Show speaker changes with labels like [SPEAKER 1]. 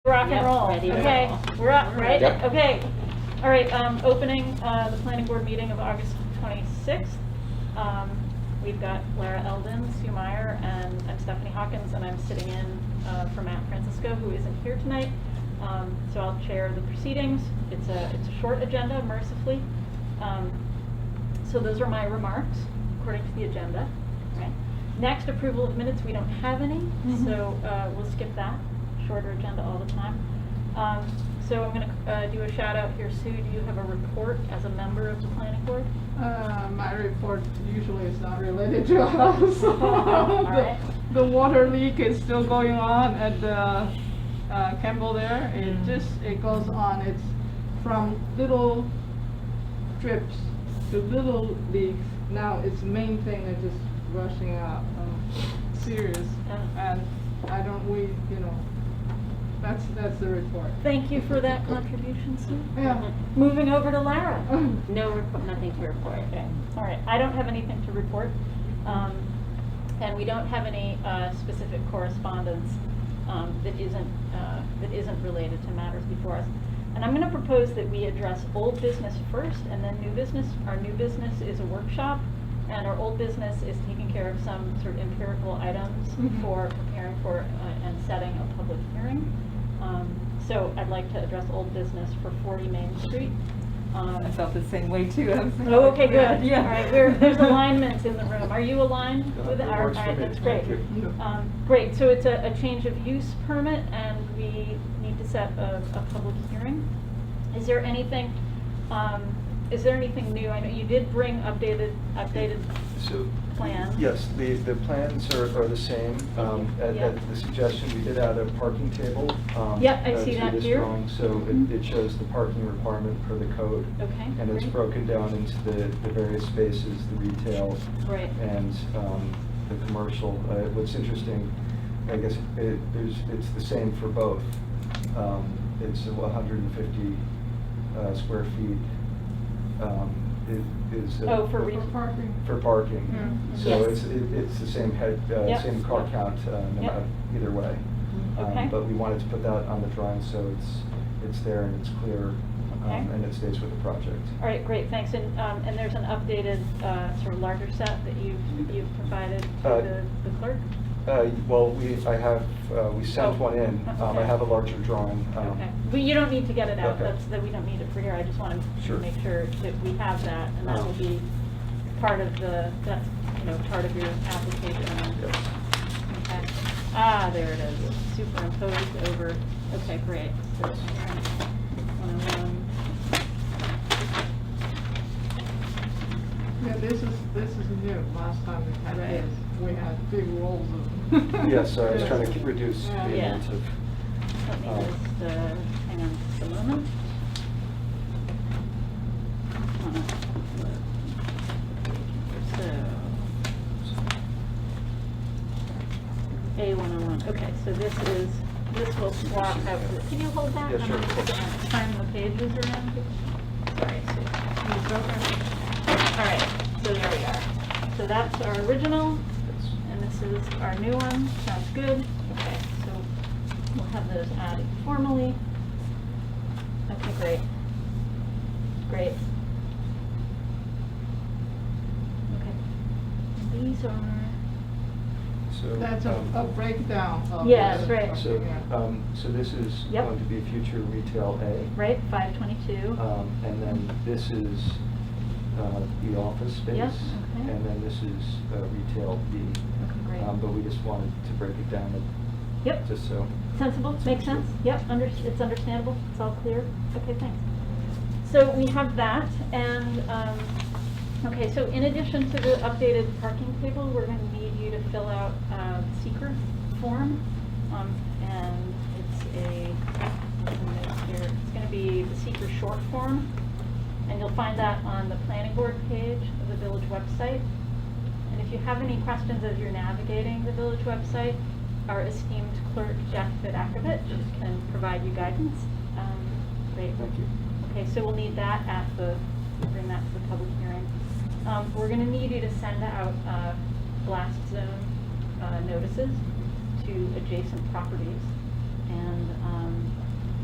[SPEAKER 1] rock and
[SPEAKER 2] Yep,
[SPEAKER 1] roll.
[SPEAKER 2] ready to
[SPEAKER 1] Okay,
[SPEAKER 2] roll.
[SPEAKER 1] we're up, right?
[SPEAKER 3] Yep.
[SPEAKER 1] Okay, all right, um, opening, uh, the planning board meeting of August twenty-sixth. Um, we've got Lara Eldon, Sue Meyer, and I'm Stephanie Hawkins, and I'm sitting in, uh, for Matt Francisco, who isn't here tonight. Um, so I'll chair the proceedings. It's a, it's a short agenda mercifully. Um, so those are my remarks according to the agenda. Right. Next, approval of minutes, we don't have any,
[SPEAKER 2] Mhm.
[SPEAKER 1] so uh, we'll skip that. Shorter agenda all the time. Um, So I'm going to do a shout out here. Sue, do you have a report as a member of the planning board?
[SPEAKER 4] Uh, my report usually is not related to us.
[SPEAKER 1] Alright.
[SPEAKER 4] the, the water leak is still going on at the uh, Campbell there. It
[SPEAKER 2] Mm.
[SPEAKER 4] just it goes on. It's from little drips to little leaks. Now its main thing is just rushing out. Um, serious.
[SPEAKER 1] Yeah.
[SPEAKER 4] And I don't. We you know. That's that's the report.
[SPEAKER 1] Thank you for that contribution, Sue.
[SPEAKER 4] Yeah.
[SPEAKER 1] Moving over to Lara.
[SPEAKER 2] No, report- nothing to report.
[SPEAKER 1] Okay, all right, I don't have anything to report, um, and we don't have any, uh, specific correspondence, um, that isn't, uh, that isn't related to matters before us. And I'm gonna propose that we address old business first and then new business. Our new business is a workshop, and our old business is taking care of some sort of empirical items
[SPEAKER 4] Mhm.
[SPEAKER 5] Mm-hmm.
[SPEAKER 1] for preparing for, uh, and setting a public hearing. Um, so I'd like to address old business for forty Main Street. Um,
[SPEAKER 5] I felt the same way too. I was like,
[SPEAKER 1] Oh, okay, good.
[SPEAKER 5] Yeah.
[SPEAKER 1] All right, we're, there's alignments in the room. Are you aligned with
[SPEAKER 3] That
[SPEAKER 1] our, all
[SPEAKER 3] works for
[SPEAKER 1] right,
[SPEAKER 3] me.
[SPEAKER 1] that's great.
[SPEAKER 3] Thank you.
[SPEAKER 1] Um, Great, so it's a, a change of use permit and we need to set a, a public hearing. Is there anything, um, is there anything new? I know you did bring updated, updated
[SPEAKER 3] So,
[SPEAKER 1] plan.
[SPEAKER 3] yes, the, the plans are, are the same. Um, At,
[SPEAKER 1] Yeah.
[SPEAKER 3] at the suggestion, we did add a parking table. um,
[SPEAKER 1] Yep, I
[SPEAKER 3] uh,
[SPEAKER 1] see
[SPEAKER 3] to
[SPEAKER 1] that
[SPEAKER 3] this
[SPEAKER 1] here.
[SPEAKER 3] drawing, So
[SPEAKER 1] Mhm.
[SPEAKER 3] it, it shows the parking requirement for the code.
[SPEAKER 1] Okay,
[SPEAKER 3] And it's
[SPEAKER 1] great.
[SPEAKER 3] broken down into the, the various spaces, the retail,
[SPEAKER 1] Right.
[SPEAKER 3] and um, the commercial. Uh, What's interesting, I guess, it- there's, it's the same for both. Um, It's 150 uh, square feet um, i- is. uh,
[SPEAKER 1] Oh, for re-
[SPEAKER 4] For parking.
[SPEAKER 3] For parking.
[SPEAKER 4] Mm.
[SPEAKER 3] So
[SPEAKER 2] Yes.
[SPEAKER 3] it's, it- it's the same head, uh,
[SPEAKER 1] Mm-hmm. Yep.
[SPEAKER 3] same car count, uh, no
[SPEAKER 1] Yep. Mm-hmm.
[SPEAKER 3] matter- either way. Um,
[SPEAKER 1] Okay.
[SPEAKER 3] But we wanted to put that on the drawing, so it's, it's there and it's clear, um,
[SPEAKER 1] Okay.
[SPEAKER 3] and it stays with the project.
[SPEAKER 1] All right, great, thanks. And, um, and there's an updated, uh, sort of larger set that you've, you've provided to
[SPEAKER 3] Uh,
[SPEAKER 1] the the clerk?
[SPEAKER 3] Uh, Well, we, I have, uh, we
[SPEAKER 1] Oh,
[SPEAKER 3] sent one in. Um,
[SPEAKER 1] okay.
[SPEAKER 3] I have a larger drawing. um,
[SPEAKER 1] Okay, well, you don't need to get it out,
[SPEAKER 3] Okay.
[SPEAKER 1] that's, that we don't need it for here, I just want to
[SPEAKER 3] Sure.
[SPEAKER 1] make sure that we have that, and that
[SPEAKER 3] Oh.
[SPEAKER 1] will be part of the, that's, you know, part of your application.
[SPEAKER 3] yes.
[SPEAKER 1] Okay. Ah, there it is, superimposed over, okay, great. So, oh all right. 101.
[SPEAKER 4] Yeah, this is, this is new. Last time we had
[SPEAKER 1] Right.
[SPEAKER 4] this, we had big rolls of.
[SPEAKER 3] Yes, I was trying to
[SPEAKER 4] Yeah.
[SPEAKER 3] ke- reduce the
[SPEAKER 4] Yeah.
[SPEAKER 1] Yeah.
[SPEAKER 3] amount of,
[SPEAKER 1] Let me
[SPEAKER 3] Oh.
[SPEAKER 1] just, uh, hang on just a moment. Wanna- So. A one oh one, okay, so this is, this will swap out, the- can you hold that?
[SPEAKER 3] Yeah, sure,
[SPEAKER 1] I'm
[SPEAKER 3] of
[SPEAKER 1] just
[SPEAKER 3] course.
[SPEAKER 1] gonna Turn the pages around. Sorry, Sue. It's over. All right, so there we are. So that's our original. And this is our new one, sounds good. Okay, so we'll have those added formally. Okay, great. Great. Okay. These are,
[SPEAKER 3] so.
[SPEAKER 4] That's a,
[SPEAKER 3] um,
[SPEAKER 4] a breakdown of.
[SPEAKER 1] Yeah,
[SPEAKER 4] the-
[SPEAKER 1] that's right.
[SPEAKER 3] So,
[SPEAKER 4] Yeah.
[SPEAKER 3] um, so this is
[SPEAKER 1] Yep.
[SPEAKER 3] going to be future retail A.
[SPEAKER 1] right, five twenty-two.
[SPEAKER 3] Um, and then this is, uh, the office space.
[SPEAKER 1] Yeah, okay.
[SPEAKER 3] And then this is, uh, retail B.
[SPEAKER 1] Okay, great.
[SPEAKER 3] Um, but we just wanted to break it down, and
[SPEAKER 1] Yep,
[SPEAKER 3] just so.
[SPEAKER 1] sensible, makes sense? Yep, under, it's understandable, it's all clear. Okay, thanks. So we have that, and, um, okay, so in addition to the updated parking table, we're going to need you to fill out a seeker form. Um, And it's a, what's in this here? it's going to be the seeker short form, and you'll find that on the planning board page of the village website. And if you have any questions as you're navigating the village website, our esteemed clerk, Jack Vidakovich, can provide you guidance. Um, Great.
[SPEAKER 3] Thank you.
[SPEAKER 1] Okay, so we'll need that at the, bring that to the public hearing. Um, we're gonna need you to send out, uh, blast zone, uh, notices to adjacent properties. And, um,